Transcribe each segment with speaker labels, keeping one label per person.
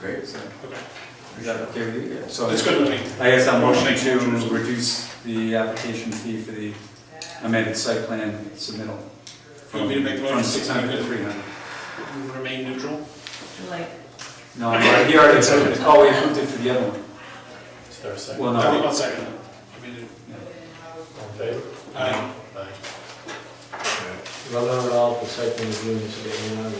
Speaker 1: Great, so
Speaker 2: Okay,
Speaker 1: is that okay with you? Yeah, So
Speaker 2: that's good with me.
Speaker 1: I guess I'm
Speaker 2: Motion
Speaker 1: motioning
Speaker 2: to-
Speaker 1: to reduce the application fee for the amended site plan submittal.
Speaker 2: You want me to make the motion?
Speaker 1: From six hundred to three hundred.
Speaker 2: Remain neutral?
Speaker 3: Like,
Speaker 1: No, I- he already said, it. oh, we approved it for the other one.
Speaker 4: Is there a second?
Speaker 1: Well,
Speaker 2: I'll
Speaker 1: no,
Speaker 2: I'll second it. I mean, it-
Speaker 4: All in favor?
Speaker 2: Aye.
Speaker 4: Aye.
Speaker 5: Well, not at all, the site plan is doing this day and hours.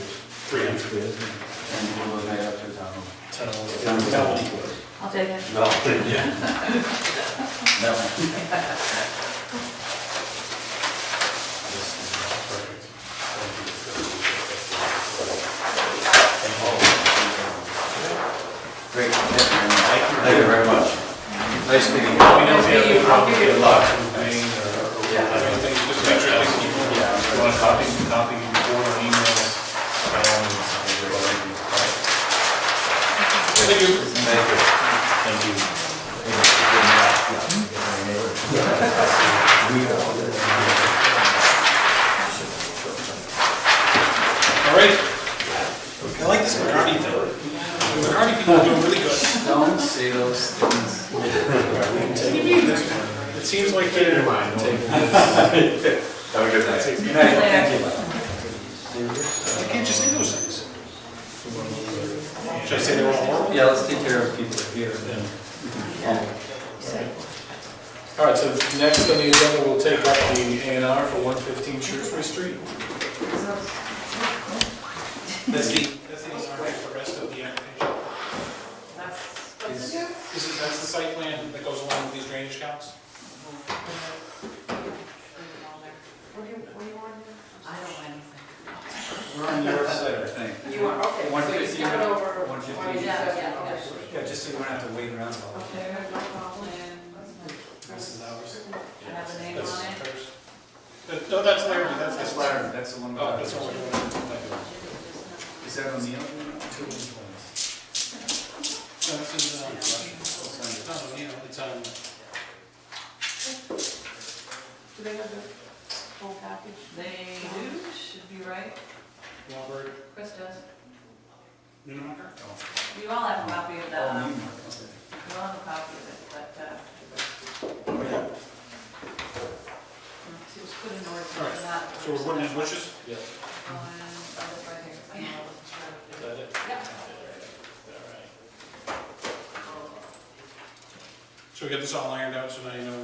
Speaker 2: Three hundred.
Speaker 1: and we'll lay up to town. hall.
Speaker 4: Ten
Speaker 1: Town
Speaker 4: dollars.
Speaker 1: hall.
Speaker 3: I'll take it.
Speaker 1: No, yeah. That one.
Speaker 4: Perfect.
Speaker 1: Great, thank you very much. Nice meeting you.
Speaker 4: Let me know if you have any problems, get a lot of
Speaker 2: Everything, just make sure everything's equal.
Speaker 4: Yeah. You want to copy, copy before or emails? Um,
Speaker 2: Thank you.
Speaker 4: Thank you.
Speaker 2: All right. I like this McCarty thing. The McCarty people are doing really good.
Speaker 1: Don't say those things.
Speaker 2: It seems like they're.
Speaker 1: Have a good night. Good night, thank you.
Speaker 2: I can't just do those things. Should I say they're all horrible?
Speaker 1: Yeah, let's take care of people here. then.
Speaker 4: All right, so next on the agenda, we'll take up the A and R for one fifteen Shrewsbury Street.
Speaker 2: That's the, that's the, sorry, the rest of the application. This is, that's the site plan that goes along with these drainage counts?
Speaker 3: I don't mind.
Speaker 1: We're on your side, I think.
Speaker 6: You are, okay.
Speaker 1: One
Speaker 6: so you
Speaker 1: fifty,
Speaker 6: start over.
Speaker 1: one fifty.
Speaker 6: Or you
Speaker 3: Oh, Yeah,
Speaker 6: just-
Speaker 3: yeah,
Speaker 6: okay.
Speaker 1: Yeah, just so you don't have to wait around. all day.
Speaker 6: Okay, no problem.
Speaker 2: This is ours.
Speaker 3: I have a name
Speaker 2: That's
Speaker 3: on it.
Speaker 2: hers. But- No, that's Larry, that's, that's Larry.
Speaker 1: That's the one.
Speaker 2: Oh, that's what we're doing. No,
Speaker 1: Is that on the other
Speaker 4: Two
Speaker 1: one?
Speaker 4: ones, ones.
Speaker 2: this is, uh,
Speaker 1: Oh,
Speaker 2: no, you know, it's, um,
Speaker 6: Do they have the full package?
Speaker 3: They do, should be right.
Speaker 2: Robert
Speaker 3: Chris does.
Speaker 2: Nunemacher?
Speaker 3: You all have a copy of that,
Speaker 1: Oh,
Speaker 3: um,
Speaker 1: me.
Speaker 3: you all have a copy of it, but, uh,
Speaker 1: Oh,
Speaker 3: it was put in order
Speaker 2: Alright,
Speaker 3: for that.
Speaker 2: So we're putting in bushes?
Speaker 4: Yeah.
Speaker 3: One, oh, it's right here. Yeah.
Speaker 4: Is that it?
Speaker 3: Yeah.
Speaker 4: All right.
Speaker 2: So we get this all ironed out, so now you know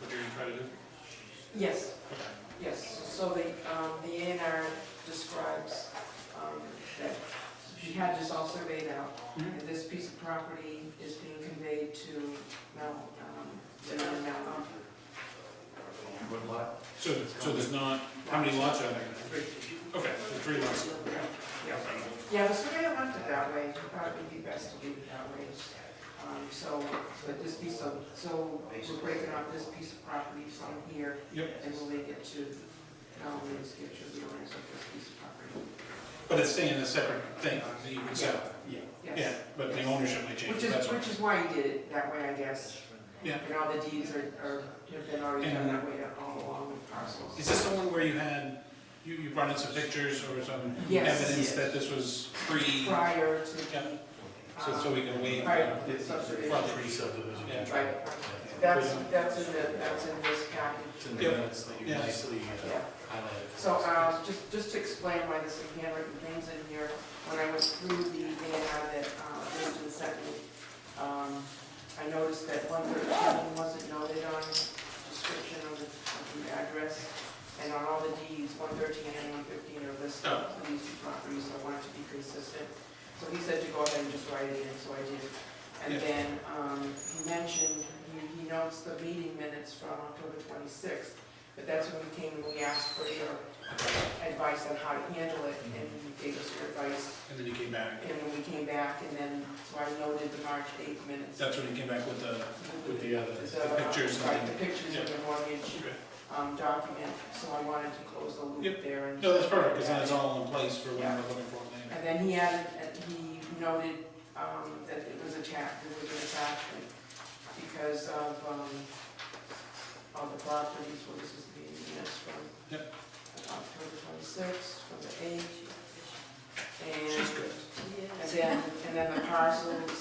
Speaker 2: what you're gonna try to do?
Speaker 6: Yes,
Speaker 2: Okay.
Speaker 6: yes, so the, um, the A and R describes, um, that she had this all surveyed out.
Speaker 2: Mhm.
Speaker 6: And This piece of property is being conveyed to Mount, um, to Mount Mount.
Speaker 2: So, so there's not, how many lots are there? Okay, so three lots. Yeah.
Speaker 6: Yeah, the surveyor left it that way, it'd probably be best to leave it that way. Um, so, but this piece of, so we're breaking up this piece of property from here
Speaker 2: Yep,
Speaker 6: and we'll make it to, um, we'll skip to the owners of this piece of property.
Speaker 2: but it's staying a separate thing that you would sell. Yeah. Yeah,
Speaker 6: Yes.
Speaker 2: but the ownership may change,
Speaker 6: Which is,
Speaker 2: that's all.
Speaker 6: which is why you did it that way, I guess.
Speaker 2: Yeah.
Speaker 6: And all the deeds are, are, have been already done that way all along with
Speaker 2: Is
Speaker 6: parcels.
Speaker 2: this the one where you had, you, you brought in some pictures or some
Speaker 6: Yes.
Speaker 2: evidence that this was pre,
Speaker 6: Prior to,
Speaker 2: yeah, so, so
Speaker 6: um,
Speaker 2: we can waive
Speaker 6: prior
Speaker 2: uh,
Speaker 6: to subdivision.
Speaker 2: flood
Speaker 4: Three subdivision.
Speaker 2: Yeah.
Speaker 6: Right, that's, that's in the, that's in this package.
Speaker 4: It's in the
Speaker 2: Yeah.
Speaker 4: minutes that you
Speaker 2: Yeah.
Speaker 4: nicely uh,
Speaker 6: Yeah.
Speaker 4: highlighted.
Speaker 6: So, uh, just, just to explain why there's some handwritten things in here, when I went through the A and R that, uh, was in second, um, I noticed that one thirteen wasn't noted on description of the, of the address, and on all the deeds, one thirteen and one fifteen are listed
Speaker 2: Oh.
Speaker 6: for these two properties, so I wanted to be consistent. So he said to go ahead and just write it in, so I did.
Speaker 2: Yeah.
Speaker 6: And then, um, he mentioned, he, he notes the meeting minutes from October twenty-sixth, but that's when we came and we asked for your advice on how to handle it, and you gave us your advice,
Speaker 2: and then you came back.
Speaker 6: and when we came back, and then, so I noted the March eighth minutes.
Speaker 2: That's when you came back with the, with the other,
Speaker 6: The,
Speaker 2: the pictures
Speaker 6: right,
Speaker 2: and
Speaker 6: The pictures of the mortgage,
Speaker 2: the.
Speaker 6: um, document, so I wanted to close the
Speaker 2: Yep.
Speaker 6: loop there and.
Speaker 2: No, that's perfect, because then it's all in place for when
Speaker 6: Yeah.
Speaker 2: we're looking for it later.
Speaker 6: And then he added, and he noted, um, that it was attached, it was an attachment because of, um, of the properties, well, this is the minutes from
Speaker 2: Yep.
Speaker 6: October twenty-sixth, from the eighth. and,
Speaker 2: She's good.
Speaker 6: and then, and then the parcels